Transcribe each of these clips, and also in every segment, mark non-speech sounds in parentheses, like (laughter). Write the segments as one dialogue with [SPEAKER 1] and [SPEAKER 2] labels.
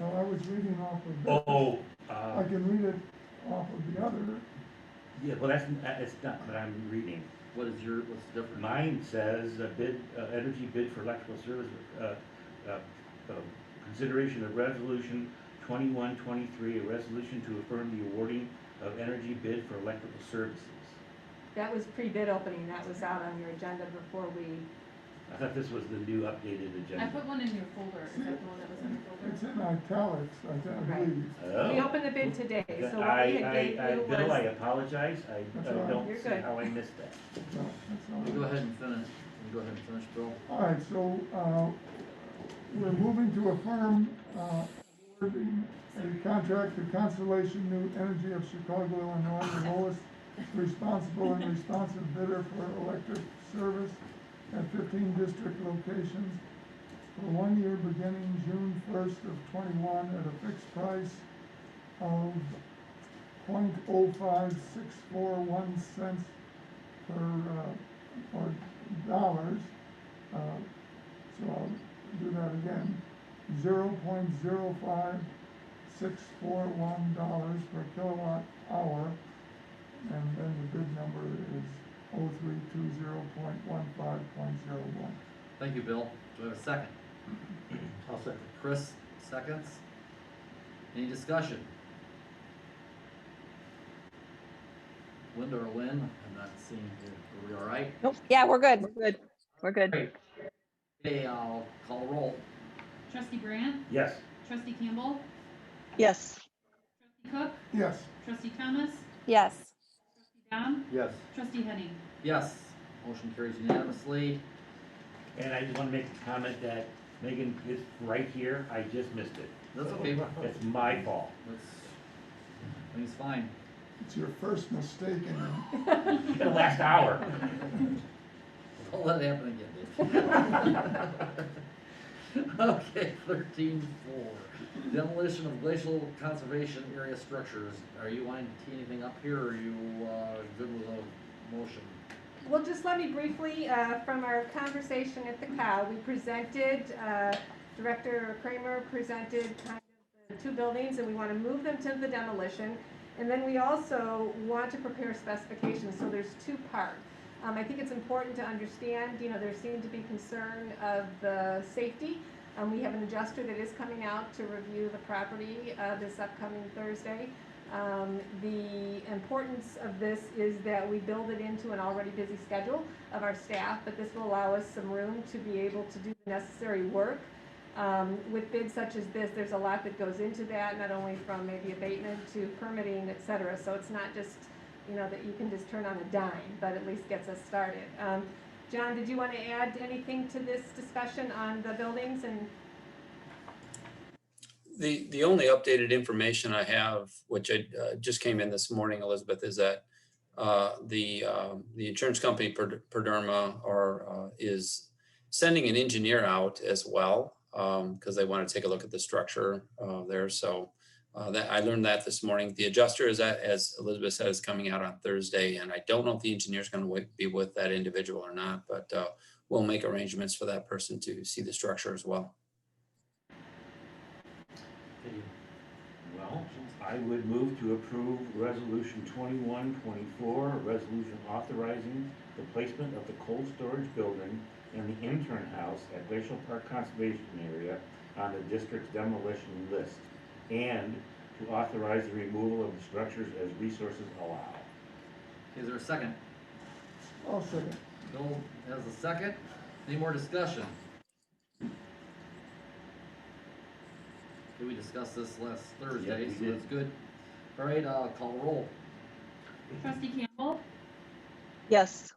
[SPEAKER 1] was reading off of this.
[SPEAKER 2] Oh,
[SPEAKER 1] I
[SPEAKER 2] uh,
[SPEAKER 1] can read it off of the other.
[SPEAKER 2] yeah, well, that's, that's not what I'm reading.
[SPEAKER 3] What is your, what's the difference?
[SPEAKER 2] Mine says a bid, uh, energy bid for electrical service, uh, uh, uh, consideration of resolution twenty-one twenty-three, a resolution to affirm the awarding of energy bid for electrical services.
[SPEAKER 4] That was pre-bid opening, that was out on your agenda before we,
[SPEAKER 2] I thought this was the new updated
[SPEAKER 5] I
[SPEAKER 2] agenda.
[SPEAKER 5] put one in your folder, is that the one that was in your
[SPEAKER 1] It's
[SPEAKER 5] folder?
[SPEAKER 1] in italics, I think, I
[SPEAKER 4] Right.
[SPEAKER 1] believe.
[SPEAKER 4] we
[SPEAKER 2] Oh.
[SPEAKER 4] opened the bid today, so what
[SPEAKER 2] I,
[SPEAKER 4] we had gave
[SPEAKER 2] I, I,
[SPEAKER 4] you
[SPEAKER 2] Bill, I
[SPEAKER 4] was,
[SPEAKER 2] apologize, I,
[SPEAKER 1] That's
[SPEAKER 2] I
[SPEAKER 1] all right.
[SPEAKER 2] don't
[SPEAKER 4] You're
[SPEAKER 2] see
[SPEAKER 4] good.
[SPEAKER 2] how I missed that.
[SPEAKER 1] No, that's not
[SPEAKER 3] You
[SPEAKER 1] it.
[SPEAKER 3] Go ahead and finish, you go ahead and finish, Bill.
[SPEAKER 1] All right, so, uh, we're moving to affirm, uh, awarding a contract to Constellation New Energy of Chicago, Illinois, the lowest responsible and responsive bidder for electric service at fifteen district locations for one year beginning June first of twenty-one at a fixed price of point oh five six four one cents per, uh, or dollars. Uh, So I'll do that again. Zero point zero five six four one dollars per kilowatt hour. And then the bid number is oh three two zero point one five point zero one.
[SPEAKER 3] Thank you, Bill. Do I have a second? I'll second. Chris, seconds. Any discussion? Linda or Lynn, I'm not seeing you. Are we all right?
[SPEAKER 6] Nope, yeah, we're good, we're good, we're good.
[SPEAKER 3] Okay, I'll call roll.
[SPEAKER 5] Trustee Brand,
[SPEAKER 2] Yes,
[SPEAKER 5] trustee Campbell,
[SPEAKER 6] Yes,
[SPEAKER 5] trustee Cook,
[SPEAKER 1] Yes,
[SPEAKER 5] trustee Thomas,
[SPEAKER 6] yes.
[SPEAKER 5] trustee Dom,
[SPEAKER 3] Yes.
[SPEAKER 5] trustee Henning.
[SPEAKER 3] Yes, motion carries unanimously.
[SPEAKER 2] and I just wanna make a comment that Megan is right here, I just missed it.
[SPEAKER 3] That's okay.
[SPEAKER 2] It's my fault.
[SPEAKER 3] That's, I think it's fine.
[SPEAKER 1] it's your first mistake in the
[SPEAKER 4] (laughs)
[SPEAKER 2] The last hour.
[SPEAKER 3] Don't let it happen again, Dave. (laughs) Okay, thirteen four, demolition of glacial conservation area structures. Are you wanting to tee anything up here, or are you, uh, good with a motion?
[SPEAKER 4] well, just let me briefly, uh, from our conversation at the COW, we presented, uh, Director Kramer presented kind of the two buildings, and we want to move them to the demolition. And then we also want to prepare specifications, so there's two parts. Um, I think it's important to understand, you know, there seemed to be concern of the safety. Um, we have an adjuster that is coming out to review the property, uh, this upcoming Thursday. Um, the importance of this is that we build it into an already busy schedule of our staff, but this will allow us some room to be able to do the necessary work. Um, with bids such as this, there's a lot that goes into that, not only from maybe abatement to permitting, et cetera. So it's not just, you know, that you can just turn on a dime, but at least gets us started. Um, John, did you want to add anything to this discussion on the buildings and
[SPEAKER 7] The, the only updated information I have, which I uh, just came in this morning, Elizabeth, is that uh, the, um, the insurance company, Per- Perderma, are, uh, is sending an engineer out as well, because they want to take a look at the structure uh, there. So uh, that, I learned that this morning. The adjuster is, at- as Elizabeth said, is coming out on Thursday, and I don't know if the engineer's going to be with that individual or not, but uh, we'll make arrangements for that person to see the structure as well.
[SPEAKER 2] Well, I would move to approve resolution twenty-one twenty-four, a resolution authorizing the placement of the cold storage building and the intern house at Glacial Park Conservation Area on the district's demolition list, and to authorize the removal of the structures as resources allow.
[SPEAKER 3] Is there a second?
[SPEAKER 1] I'll second.
[SPEAKER 3] Bill has a second. Any more discussion? Did we discuss this last Thursday?
[SPEAKER 2] we
[SPEAKER 3] So
[SPEAKER 2] did.
[SPEAKER 3] that's good. All right, uh, call roll.
[SPEAKER 5] Trustee Campbell,
[SPEAKER 6] Yes.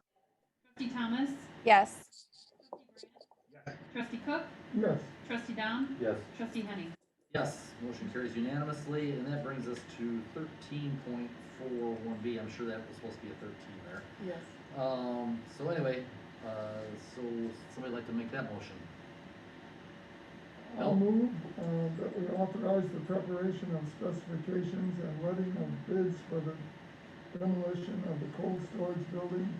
[SPEAKER 5] trustee Thomas,
[SPEAKER 6] Yes.
[SPEAKER 5] trustee Cook,
[SPEAKER 1] Yes,
[SPEAKER 5] trustee Dom,
[SPEAKER 3] Yes.
[SPEAKER 5] trustee Henning.
[SPEAKER 3] Yes, motion carries unanimously, and that brings us to thirteen point four one B, I'm sure that was supposed to be a thirteen there.
[SPEAKER 4] Yes.
[SPEAKER 3] Um, so anyway, uh, so somebody like to make that motion?
[SPEAKER 1] I'll
[SPEAKER 3] Bill?
[SPEAKER 1] move, uh, that we authorize the preparation of specifications and letting of bids for the demolition of the cold storage building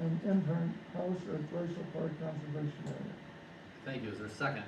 [SPEAKER 1] and intern house at Glacial Park Conservation Area.
[SPEAKER 3] Thank you, is there a second?